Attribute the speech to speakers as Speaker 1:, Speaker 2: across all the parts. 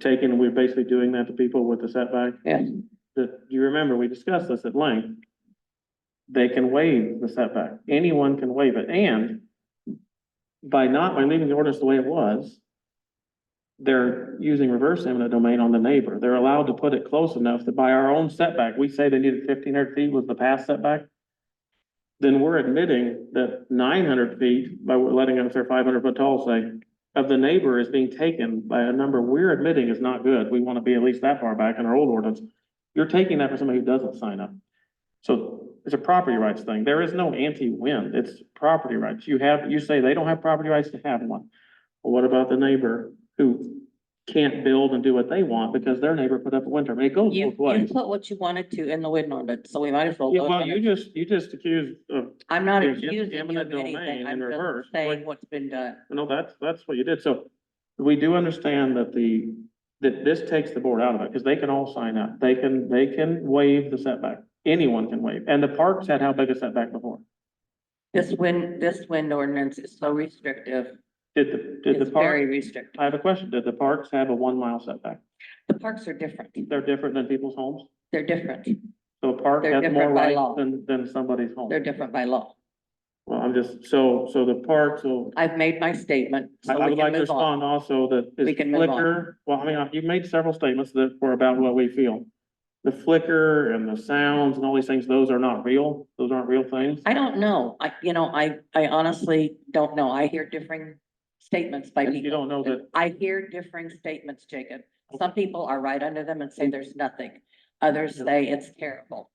Speaker 1: taken, we're basically doing that to people with the setback.
Speaker 2: Yeah.
Speaker 1: That, you remember, we discussed this at length. They can waive the setback. Anyone can waive it. And by not, by leaving the ordinance the way it was, they're using reverse eminent domain on the neighbor. They're allowed to put it close enough that by our own setback, we say they needed fifteen hundred feet was the past setback. Then we're admitting that nine hundred feet by letting us, they're five hundred foot tall, say, of the neighbor is being taken by a number we're admitting is not good. We want to be at least that far back in our old ordinance. You're taking that for somebody who doesn't sign up. So it's a property rights thing. There is no anti-wind. It's property rights. You have, you say they don't have property rights to have one. Well, what about the neighbor who can't build and do what they want because their neighbor put up a wind turbine? It goes
Speaker 2: You,
Speaker 1: both
Speaker 2: you
Speaker 1: ways.
Speaker 2: put what you wanted to in the wind ordinance, so we might as well.
Speaker 1: Yeah,
Speaker 2: go
Speaker 1: well,
Speaker 2: there.
Speaker 1: you just, you just accused of,
Speaker 2: I'm not
Speaker 1: you're getting
Speaker 2: accusing you
Speaker 1: eminent
Speaker 2: of
Speaker 1: domain
Speaker 2: anything.
Speaker 1: in
Speaker 2: I'm
Speaker 1: reverse,
Speaker 2: just
Speaker 1: like-
Speaker 2: saying what's been done.
Speaker 1: no, that's, that's what you did. So we do understand that the, that this takes the board out of it because they can all sign up. They can, they can waive the setback. Anyone can waive. And the parks had how big a setback before?
Speaker 2: This wind, this wind ordinance is so restrictive.
Speaker 1: Did the, did
Speaker 2: It's
Speaker 1: the park,
Speaker 2: very restrictive.
Speaker 1: I have a question. Did the parks have a one mile setback?
Speaker 2: The parks are different.
Speaker 1: They're different than people's homes?
Speaker 2: They're different.
Speaker 1: So a park
Speaker 2: They're
Speaker 1: has more
Speaker 2: different by
Speaker 1: rights
Speaker 2: law.
Speaker 1: than, than somebody's home?
Speaker 2: They're different by law.
Speaker 1: Well, I'm just, so, so the park, so
Speaker 2: I've made my statement,
Speaker 1: I
Speaker 2: so
Speaker 1: I
Speaker 2: we
Speaker 1: would like
Speaker 2: can
Speaker 1: to
Speaker 2: move on.
Speaker 1: respond also that is
Speaker 2: We can move on.
Speaker 1: flicker, well, I mean, uh, you've made several statements that were about what we feel. The flicker and the sounds and all these things, those are not real. Those aren't real things.
Speaker 2: I don't know. I, you know, I, I honestly don't know. I hear differing statements by
Speaker 1: You
Speaker 2: people.
Speaker 1: don't know that,
Speaker 2: I hear differing statements, Jacob. Some people are right under them and say there's nothing. Others say it's terrible.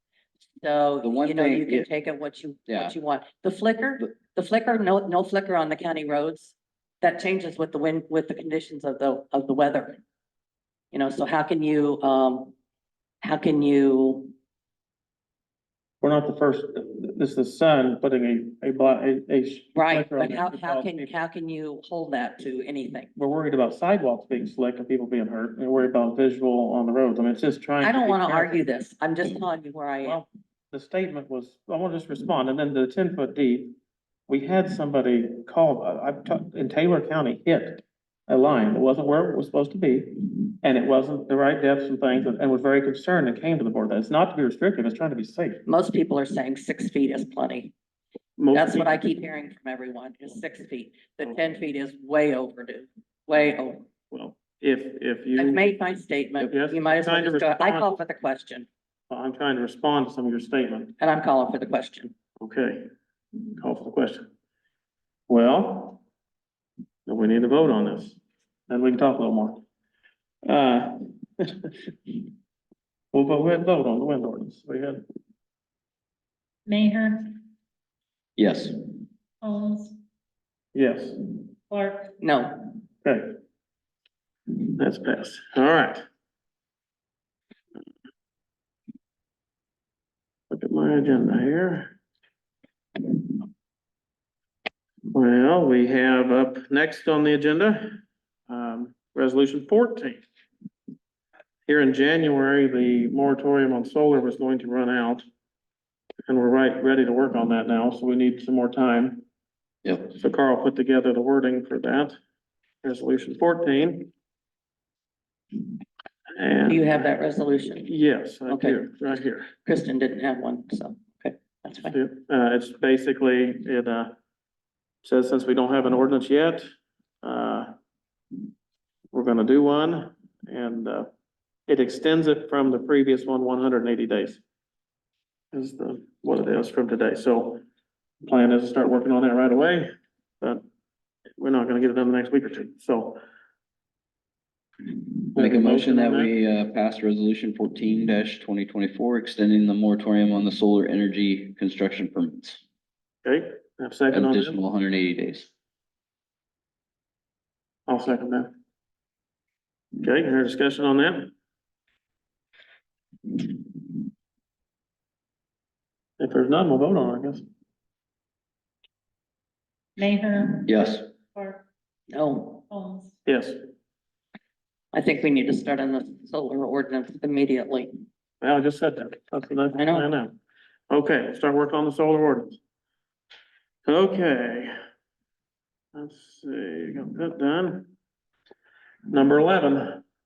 Speaker 2: So,
Speaker 3: The one
Speaker 2: you know,
Speaker 3: thing
Speaker 2: you can
Speaker 3: is-
Speaker 2: take it what you,
Speaker 3: Yeah.
Speaker 2: what you want. The flicker, the flicker, no, no flicker on the county roads. That changes with the wind, with the conditions of the, of the weather. You know, so how can you, um, how can you,
Speaker 1: we're not the first, this is the sun putting a, a, bla- a, a. sh-
Speaker 2: right,
Speaker 1: flicker on
Speaker 2: but
Speaker 1: it
Speaker 2: how,
Speaker 1: to
Speaker 2: how
Speaker 1: cause
Speaker 2: can,
Speaker 1: people-
Speaker 2: how can you hold that to anything?
Speaker 1: We're worried about sidewalks being slick and people being hurt and worried about visual on the roads. I mean, it's just trying.
Speaker 2: I don't
Speaker 1: be
Speaker 2: want to
Speaker 1: careful.
Speaker 2: argue this. I'm just telling you where I am.
Speaker 1: Well, the statement was, I want to just respond, and then the ten foot deep, we had somebody call, uh, I- I've talked, in Taylor County, hit a line that wasn't where it was supposed to be, and it wasn't the right depths and things, and and was very concerned and came to the board, that it's not to be restrictive, it's trying to be safe.
Speaker 2: Most people are saying six feet is plenty.
Speaker 1: Most
Speaker 2: That's what I
Speaker 1: people-
Speaker 2: keep hearing from everyone, is six feet. The ten feet is way overdue, way over.
Speaker 1: Well, if, if you.
Speaker 2: I've made my statement.
Speaker 1: Yes,
Speaker 2: You might as well
Speaker 1: trying to
Speaker 2: just go, I
Speaker 1: respond.
Speaker 2: call for the question,
Speaker 1: I'm trying to respond to some of your statement.
Speaker 2: and I'm calling for the question.
Speaker 1: Okay, call for the question. Well, then we need to vote on this, then we can talk a little more. Uh, Well, but we had vote on the wind ordinance, we had,
Speaker 4: Mayor,
Speaker 3: Yes.
Speaker 4: Holmes,
Speaker 1: yes,
Speaker 4: Clark,
Speaker 2: No,
Speaker 1: okay. That's passed, all right. Look at my agenda here. Well, we have up next on the agenda, um, resolution fourteen. Here in January, the moratorium on solar was going to run out. And we're right, ready to work on that now, so we need some more time.
Speaker 3: Yep.
Speaker 1: So Carl put together the wording for that, resolution fourteen. And.
Speaker 2: do you have that resolution?
Speaker 1: Yes, I
Speaker 2: Okay.
Speaker 1: do, right here.
Speaker 2: Kristen didn't have one, so, okay, that's fine.
Speaker 1: Yeah, Uh, it's basically, it, uh, says since we don't have an ordinance yet, uh, we're gonna do one and, uh, it extends it from the previous one, one hundred and eighty days. Is the, what it is from today. So plan is to start working on that right away, but we're not gonna get it done the next week or two, so.
Speaker 3: Make a motion that
Speaker 1: on
Speaker 3: we uh pass resolution fourteen twenty twenty-four, extending the moratorium on the solar energy construction permits.
Speaker 1: Okay, have a second
Speaker 3: An
Speaker 1: on that?
Speaker 3: additional hundred and eighty days.
Speaker 1: I'll second that. Okay, any other discussion on that? If there's none, we'll vote on it, I guess.
Speaker 4: Mayor,
Speaker 3: Yes.
Speaker 4: Clark,
Speaker 2: No,
Speaker 4: Holmes,
Speaker 1: Yes,
Speaker 2: I think we need to start on the solar ordinance immediately.
Speaker 1: well, I just said that. That's the next
Speaker 2: I know.
Speaker 1: thing I know. Okay, start working on the solar ordinance. Okay. Let's see, got that done. Number eleven,